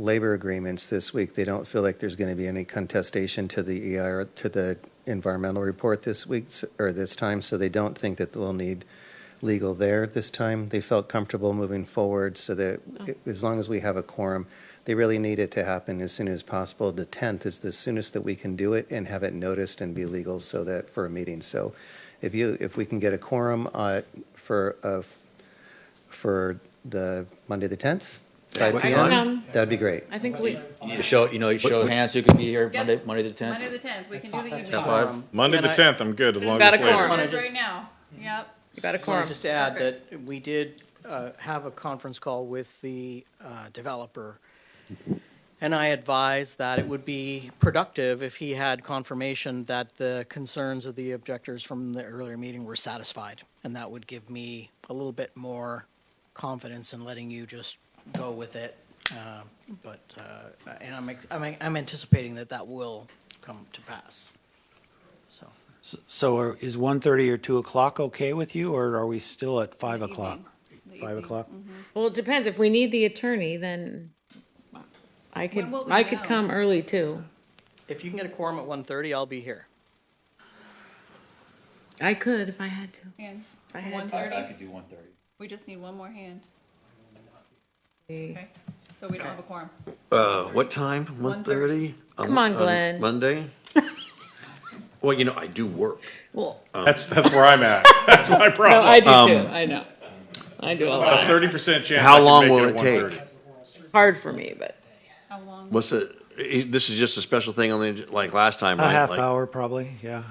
labor agreements this week. They don't feel like there's going to be any contestation to the EIR, to the environmental report this week, s- or this time, so they don't think that we'll need legal there this time. They felt comfortable moving forward, so that it- as long as we have a quorum, they really need it to happen as soon as possible. The 10th is the soonest that we can do it and have it noticed and be legal so that, for a meeting. So if you, if we can get a quorum uh, for, a for the Monday, the 10th, Yeah, 5 what PM. time? Um, That'd be great. I think we, You need to show, you know, you show hands who could be here Yeah. Monday, Monday the Monday tenth. the tenth, we can do the evening. At five? Monday And the I- 10th, I'm good, as long as got it's a later. quorum. It is just- right now, yep. you got a quorum. Wanted Just to add that we did uh, have a conference call with the uh, developer, and I advised that it would be productive if he had confirmation that the concerns of the objectors from the earlier meeting were satisfied, and that would give me a little bit more confidence in letting you just go with it. uh, But, uh, and I'm, I'm- I'm anticipating that that will come to pass, so. So are- is 1:30 or 2 o'clock okay with you, or are we still at 5 o'clock? Five o'clock. Well, it depends. If we need the attorney, then I could, When will we I could know? come early too. If you can get a quorum at 1:30, I'll be here. I could if I had to. And I had one to. I thirty, could do one thirty. we just need one more hand, Okay. okay? So we don't have a quorum. Uh, what time? One thirty? Come Um, on, Glenn. Monday? Well, you know, I do work. Well, That's, that's where I'm at. That's my no, I problem. do too. Um, I know. I do a A lot. 30% chance I How can long make will at it take? 1:30. Hard for me, but How long? What's the, eh, this is just a special thing on the, like last time, A right? half Like, hour, probably, yeah.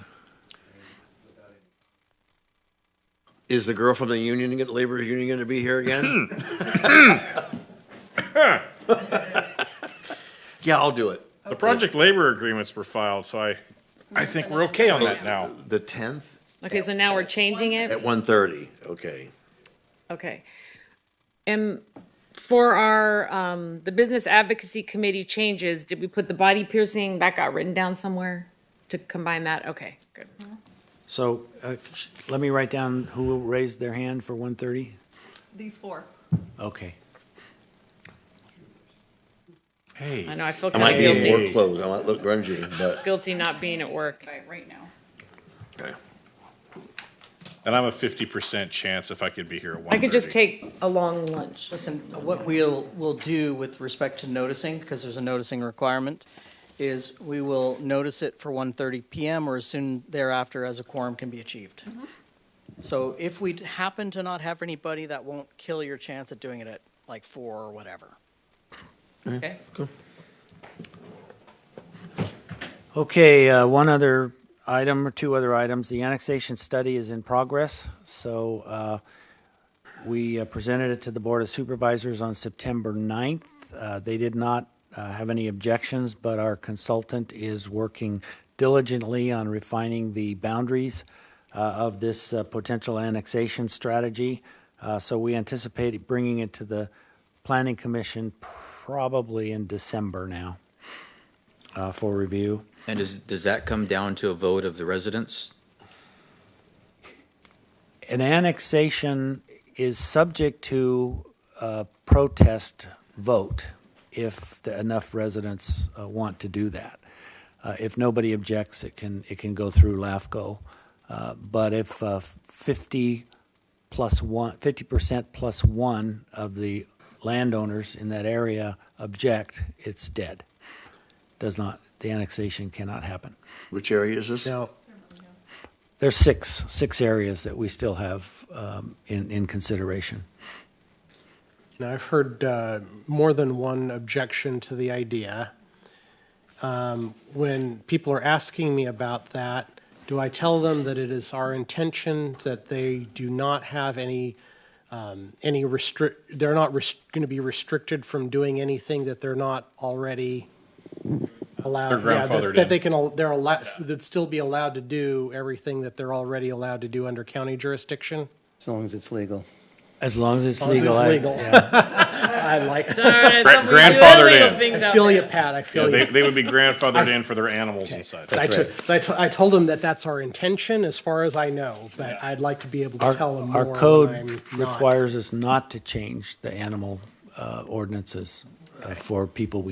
Is the girl from the union, gonna- labor union gonna be here again? Yeah, I'll do it. The project labor agreements were filed, so I, I think we're okay on that now. The tenth okay. So now we're changing at it. one thirty, okay. Okay. And for our, um, the Business Advocacy Committee changes, did we put the body piercing? That got written down somewhere to combine that? Okay, good. So uh, sh- let me write down who raised their hand for 1:30? These four. Okay. I Hey, know, I feel I kind might of be in guilty, work clothes, I might look grungy, but, guilty not being at work. Right, right now. okay. and I'm a 50% chance if I could be here at 1:30. I could just take a long lunch. Listen, what we'll, we'll do with respect to noticing, because there's a noticing requirement, is we will notice it for 1:30 PM or as soon thereafter as a quorum can be achieved. So if we happen to not have anybody, that won't kill your chance at doing it at like four or whatever. Okay? Okay, uh, one other item or two other items. The annexation study is in progress, so uh, we uh, presented it to the Board of Supervisors on September 9th. Uh, They did not uh, have any objections, but our consultant is working diligently on refining the boundaries uh, of this uh, potential annexation strategy. Uh, So we anticipate bringing it to the Planning Commission probably in December now uh, for review. And does, does that come down to a vote of the residents? an annexation is subject to a protest vote if the- enough residents uh, want to do that. Uh, If nobody objects, it can, it can go through LAFCO. Uh, But if uh, 50 plus one, 50% plus one of the landowners in that area object, it's dead. Does not, the annexation cannot happen. Which area is this? Now, there's six, six areas that we still have um, in, in consideration. And I've heard uh, more than one objection to the idea. Um, When people are asking me about that, do I tell them that it is our intention that they do not have any, um, any restrict, they're not going to be restricted from doing anything that they're not already allowed? They're yeah, that- grandfathered in. That they can, al- they're allowed, they'd still be allowed to do everything that they're already allowed to do under county jurisdiction? As long as it's legal. As long as it's As long as legal. it's eh? I- legal. I like, All right, so we do grandfathered illegal in. things I out feel there. you, Pat, I Yeah, feel you. they, they would be grandfathered in for their animals inside. I, That's took- I to- I told them that that's our intention, as far as I know, but I'd like to be able to Our, tell them our more code when I'm not. requires us not to change the animal uh, ordinances uh, for people we